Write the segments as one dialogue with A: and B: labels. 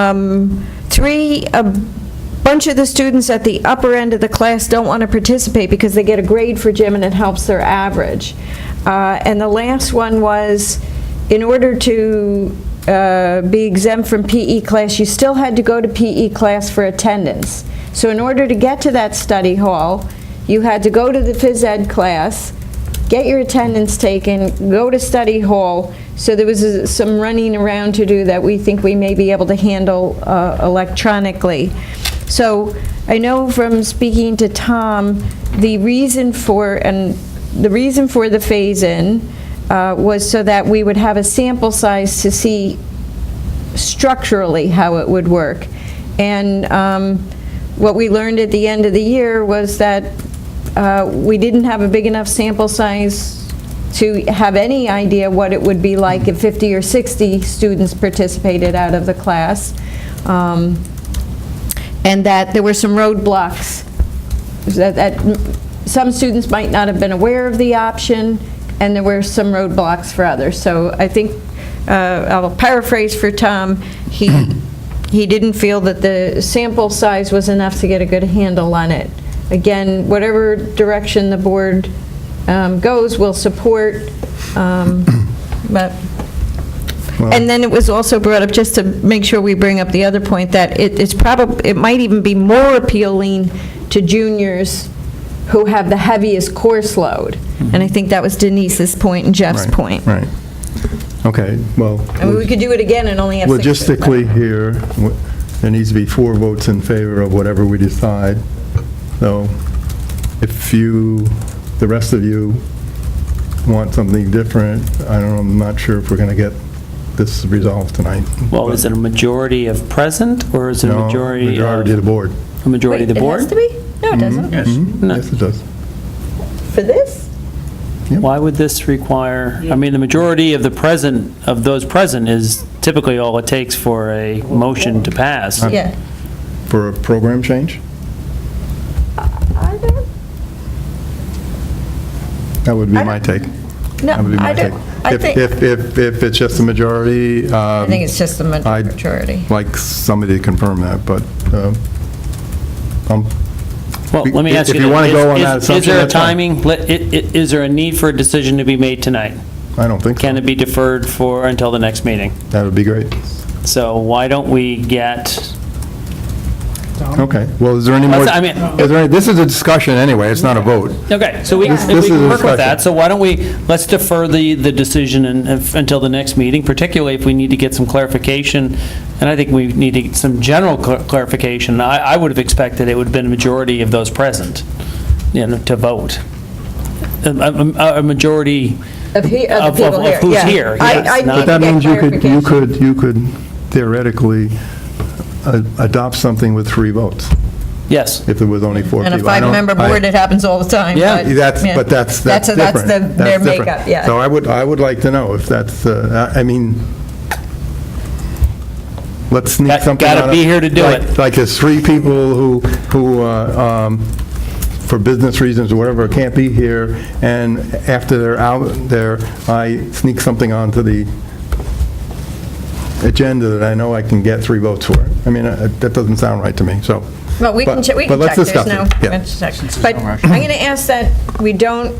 A: Um, Three, a bunch of the students at the upper end of the class don't want to participate because they get a grade for gym and it helps their average. Uh, And the last one was, in order to uh, be exempt from PE class, you still had to go to PE class for attendance. So in order to get to that study hall, you had to go to the phys ed class, get your attendance taken, go to study hall. So there was uh, some running around to do that we think we may be able to handle uh, electronically. So I know from speaking to Tom, the reason for, and the reason for the phase-in uh, was so that we would have a sample size to see structurally how it would work. And um, what we learned at the end of the year was that uh, we didn't have a big enough sample size to have any idea what it would be like if 50 or 60 students participated out of the class, Um, and that there were some roadblocks that, that some students might not have been aware of the option, and there were some roadblocks for others. So I think, uh, I'll paraphrase for Tom, he, he didn't feel that the sample size was enough to get a good handle on it. Again, whatever direction the board um, goes, we'll support, um, but and then it was also brought up, just to make sure we bring up the other point, that it- it's probably, it might even be more appealing to juniors who have the heaviest course load. And I think that was Denise's point and Jeff's
B: Mm-hmm. Right,
A: point.
B: Right. Okay, well,
A: I mean, we could do it again and only have six.
B: logistically here, w- there needs to be four votes in favor of whatever we decide. So if you, the rest of you want something different, I don't, I'm not sure if we're going to get this resolved tonight.
C: Well, is it a majority of present, or is it a
B: No,
C: majority
B: Majority of the
C: of,
B: board.
C: a majority of the
A: Wait,
C: board?
A: it has to be? No, it doesn't.
B: Mhm,
C: No.
B: Yes, it does.
A: For this?
C: Why would this require, I mean, the majority of the present, of those present is typically all it takes for a motion to pass.
B: Uh,
A: Yeah.
B: For a program change?
A: I don't,
B: That would be
A: I
B: my take. That would be
A: no, I
B: my take.
A: don't, I
B: If-
A: think,
B: If, if, if it's just a majority, um,
A: I think it's just the
B: I-
A: majority.
B: like somebody to confirm that, but, um, um,
C: Well, let me
B: If-
C: ask you.
B: if you wanna
C: is-
B: go on that
C: is- Is
B: assumption,
C: there a
B: that's fine.
C: timing, Let- i- i- is there a need for a decision to be made tonight?
B: I don't think so.
C: Can it be deferred for, until the next meeting?
B: That would be great.
C: So why don't we get,
B: Okay, well, is there any more?
C: That's- I mean- Uh,
B: Is there, any- this is a discussion anyway, it's not a vote.
C: okay, so we,
B: This-
C: if
B: this
C: we
B: is a
C: can work with
B: discussion.
C: that, so why don't we, let's defer the, the decision and- and f- until the next meeting, particularly if we need to get some clarification, and I think we need to get some general cl- clarification. I, I would have expected it would have been a majority of those present, you know, to vote. A- A, a- a majority,
A: Of he-
C: of-
A: of
C: of-
A: the people
C: of
A: here,
C: who's
A: yeah.
C: here,
A: I-
C: yes,
A: I
C: not-
A: need
B: But
A: to
B: that
A: get
B: means you could, you
A: clarification.
B: could, you could theoretically uh, adopt something with three votes,
C: yes.
B: if there was only four
A: And
B: people.
A: a
B: I don't-
A: five-member
B: I-
A: board, it happens all the time.
C: Yeah,
A: but-
B: That's,
A: yeah.
B: but that's, that's
A: a-
B: different.
A: That's the- their
B: That's different.
A: makeup, yeah.
B: So I would, I would like to know if that's, uh, I I mean, let's sneak
C: Got-
B: something
C: gotta
B: out of-
C: be here to do
B: like-
C: it.
B: Like there's three people who, who, uh, um, for business reasons or whatever, can't be here, and after they're out there, I sneak something onto the agenda that I know I can get three votes for. I mean, uh, that doesn't sound right to me, so.
A: Well, we can
B: But-
A: check, we
B: but
A: can
B: let's
A: check. There's
B: discuss
A: no-
B: it. Yeah.
A: let's check. But I'm going to ask that we don't,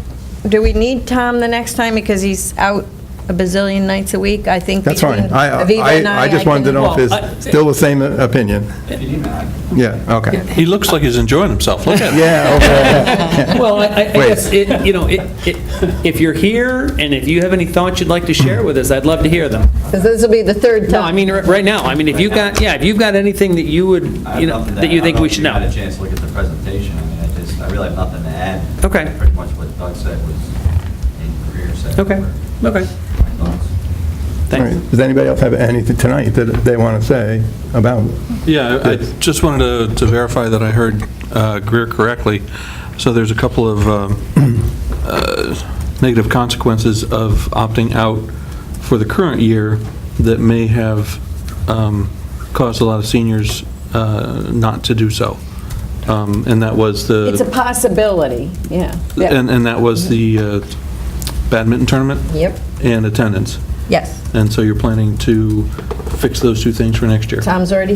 A: do we need Tom the next time because he's out a bazillion nights a week? I think
B: That's
A: between
B: fine. I,
A: Aviva
B: I,
A: and I.
B: I just wanted to
A: can-
B: know if
C: Well,
B: it's
C: I-
B: still the same opinion. Yeah, okay.
D: He looks like he's enjoying himself. Look at him.
B: Yeah, okay,
C: Well, I- I I
B: Wait.
C: guess, it- you know, it- it- if you're here and if you have any thoughts you'd like to share with us, I'd love to hear them.
A: 'Cause this will be the third
C: No, I
A: time.
C: mean, r- right now, I mean, if you've got, yeah, if you've got anything that you would,
E: I have
C: you know,
E: nothing to
C: that you
E: add.
C: think we should
D: I
E: I
C: know.
E: don't know if you had a chance to look at the presentation, I mean, I just, I really have nothing to add.
C: Okay.
E: Pretty much what Doug said was a career set.
C: Okay,
E: for
C: okay.
E: my thoughts.
B: all right. Does anybody else have anything tonight that they want to say about it?
D: Yeah, I I
B: Yes.
D: just wanted to- to verify that I heard uh, Greer correctly. So there's a couple of um, uh, negative consequences of opting out for the current year that may have um, caused a lot of seniors uh, not to do so. Um, And that was the...
A: It's a possibility, yeah. Yeah.
D: And, and that was the uh, badminton tournament?
A: Yep.
D: And attendance.
A: Yes.
D: And so you're planning to fix those two things for next year?
A: Tom's already